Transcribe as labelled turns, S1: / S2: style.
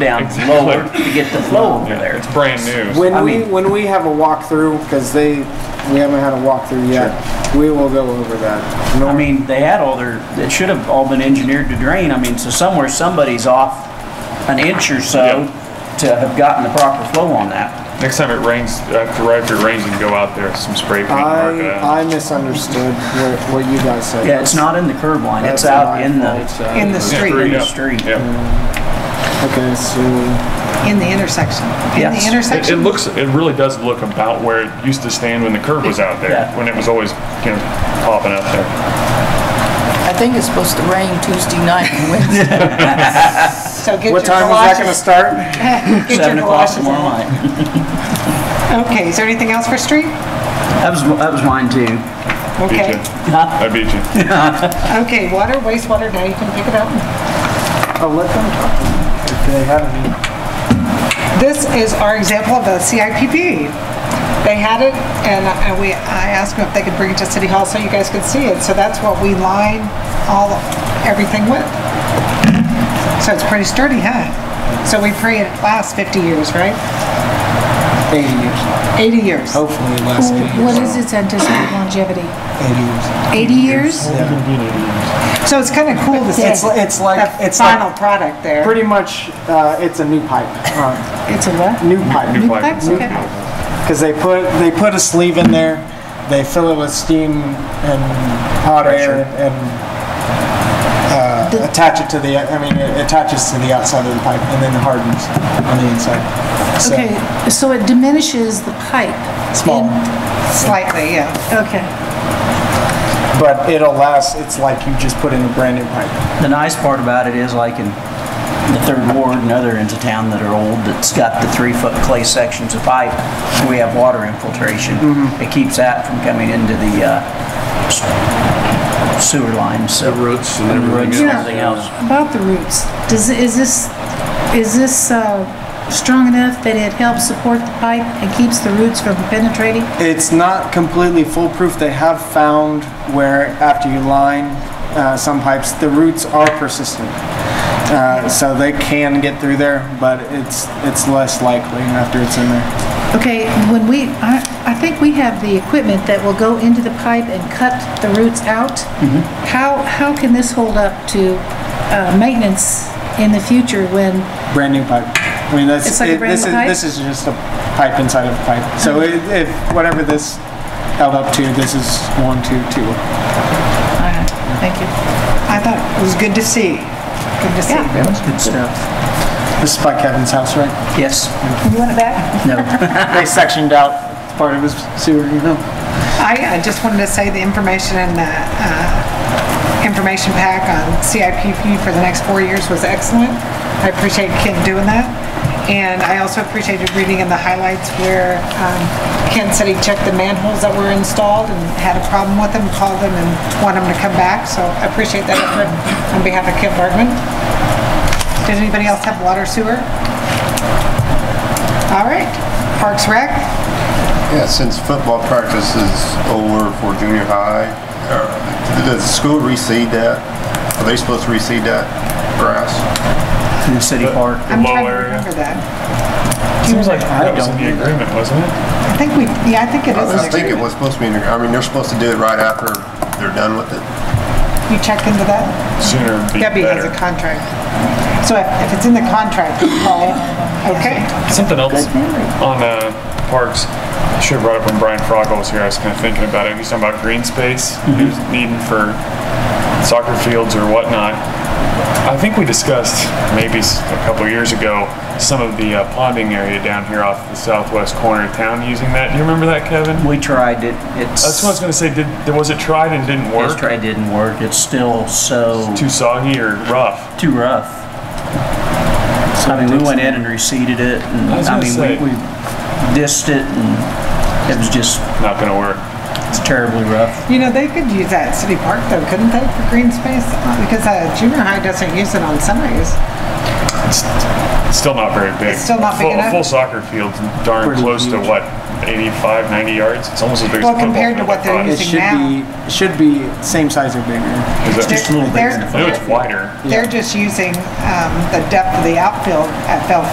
S1: down
S2: Exactly.
S1: lower to get the flow over there.
S2: It's brand new.
S3: When
S1: I
S3: we
S1: mean-
S3: when we have a walkthrough, because they we haven't had a walkthrough yet, we will go over that. No,
S1: I mean, they had all their, it should have all been engineered to drain. I mean, so somewhere somebody's off an inch or so to have gotten the proper flow on that.
S2: Next time it rains, after right after it rains, you can go out there with some spray paint. uh, and mark it out.
S3: I I misunderstood what, what you guys said.
S1: Yeah, it's not in the curb line. It's
S3: That's
S1: out
S3: my
S1: in
S3: fault.
S1: the,
S4: in
S2: Yeah,
S4: the street,
S2: free,
S1: in the
S2: yeah.
S1: street.
S2: Yeah.
S3: Okay, so
S4: in the intersection. In
S1: Yes. It- it
S4: the
S2: It, it
S4: intersection,
S2: looks, it really does look about where it used to stand when the curb was out there,
S1: Yeah.
S2: when it was always, you know, popping out there.
S5: I think it's supposed to rain Tuesday night and Wednesday.
S4: so get your
S3: what time was that going to
S4: galoshes-
S3: start?
S4: get your
S1: Seven o'clock
S4: galoshes
S1: tomorrow
S4: on.
S1: night.
S4: Okay, is there anything else for street?
S1: That was, that was mine too.
S2: Beat
S4: Okay,
S2: you. I beat you.
S4: okay, water, wastewater, now you can pick it up.
S3: I'll let them talk if they have any.
S4: This is our example of the CIPP. They had it, and I- we, I asked them if they could bring it to City Hall so you guys could see it, so that's what we line all, everything with. So it's pretty sturdy, huh? So we pray it lasts 50 years, right?
S3: Eighty years,
S4: 80 years.
S3: hopefully less.
S6: What is its anticipated longevity?
S3: Eighty years.
S6: 80 years?
S4: So it's kind of cool to see
S3: It's- it's like-
S4: the
S3: it's like-
S4: final product there.
S3: Pretty much, uh, it's a new pipe. Uh,
S4: It's a what?
S3: new pipe.
S2: New flag.
S6: That's okay.
S3: Because they put, they put a sleeve in there, they fill it with steam and hot air and uh, attach it to the, I mean, it attaches to the outside of the pipe and then hardens on the inside. So,
S6: Okay, so it diminishes the pipe.
S3: Small.
S6: in-
S4: Slightly, yeah.
S6: Okay.
S3: But it'll last, it's like you just put in a brand new pipe.
S1: The nice part about it is like in the third ward and other ends of town that are old, that's got the three foot clay sections of pipe, we have water infiltration. It keeps that from coming into the uh, s- sewer lines, so.
S7: roots and
S1: And the roots
S7: everything
S1: and
S7: else.
S1: everything else.
S6: About the roots, does, is this, is this uh, strong enough that it helps support the pipe and keeps the roots from penetrating?
S3: It's not completely foolproof. They have found where after you line uh, some pipes, the roots are persistent. Uh, so they can get through there, but it's, it's less likely after it's in there.
S6: Okay, when we, I, I think we have the equipment that will go into the pipe and cut the roots out.
S3: Mm-hmm.
S6: How, how can this hold up to uh, maintenance in the future when,
S3: brand new pipe. I mean, that's,
S6: It's like a
S3: it-
S6: brand
S3: this
S6: new
S3: is,
S6: pipe? Uh-huh.
S3: this is just a pipe inside of a pipe. So it, if, whatever this held up to, this is one, two, two.
S6: thank you.
S4: I thought it was good to see. Good to see.
S1: Yeah, it's good stuff.
S3: This is by Kevin's house,
S6: Uh-huh.
S3: right?
S1: Yes,
S4: You want it back?
S1: no.
S3: They sectioned out part of his sewer, you know?
S4: I, I just wanted to say the information in the, uh, information pack on CIPP for the next four years was excellent. I appreciate Ken doing that. And I also appreciated reading in the highlights where, um, Ken said he checked the manholes that were installed and had a problem with them, called them and wanted them to come back. So I appreciate that effort on behalf of Ken Bergman. Does anybody else have water sewer? All right, Parks Rec,
S7: Yeah, since football practice is over for junior high, or does the school reseed that? Are they supposed to reseed that grass?
S1: In the city park.
S4: I'm
S2: Low
S4: trying to
S2: area.
S4: remember that.
S2: Seems like that was
S1: don't
S2: in the agreement, wasn't it?
S4: I think we, yeah, I think it
S7: I
S4: is.
S7: I
S4: next
S7: think it
S4: year.
S7: was supposed to be, in the- I mean, they're supposed to do it right after they're done with it.
S4: You checked into that?
S2: Sooner would be
S4: Debbie has
S2: better.
S4: a contract. So if if it's in the contract, Paul, okay.
S2: Something else on uh, parks. I should have brought up when Brian Froggle was here. I was kind of thinking about it. He's talking about green space, he was needing for soccer fields or whatnot. I think we discussed maybe s- a couple years ago some of the uh, ponding area down here off the southwest corner of town using that. Do you remember that, Kevin?
S1: We tried it, it's.
S2: That's what I was going to say. Did was it tried and didn't
S1: It was
S2: work?
S1: tried, didn't work. It's still so,
S2: Too soggy or rough?
S1: too rough. I mean, we went in and reseeded it and,
S2: I was
S1: I
S2: gonna
S1: mean,
S2: say-
S1: we, we dissed it and it was just
S2: Not going to work.
S1: it's terribly rough.
S4: You know, they could use that at City Park though, couldn't they, for green space? Because uh, junior high doesn't use it on Sundays.
S2: It's still not very big.
S4: It's still not big
S2: full,
S4: enough?
S2: Full soccer field's darn
S1: Pretty
S2: close to
S1: huge.
S2: what 85, 90 yards. It's almost as big as a
S4: Well,
S2: football
S4: compared to
S2: field,
S4: what
S2: I
S4: they're
S2: thought.
S3: It
S4: using-
S3: should be, it should be same size or bigger.
S2: Is that-
S4: They're- they're-
S2: I know it's wider.
S4: They're just using um, the depth of the outfield at Bell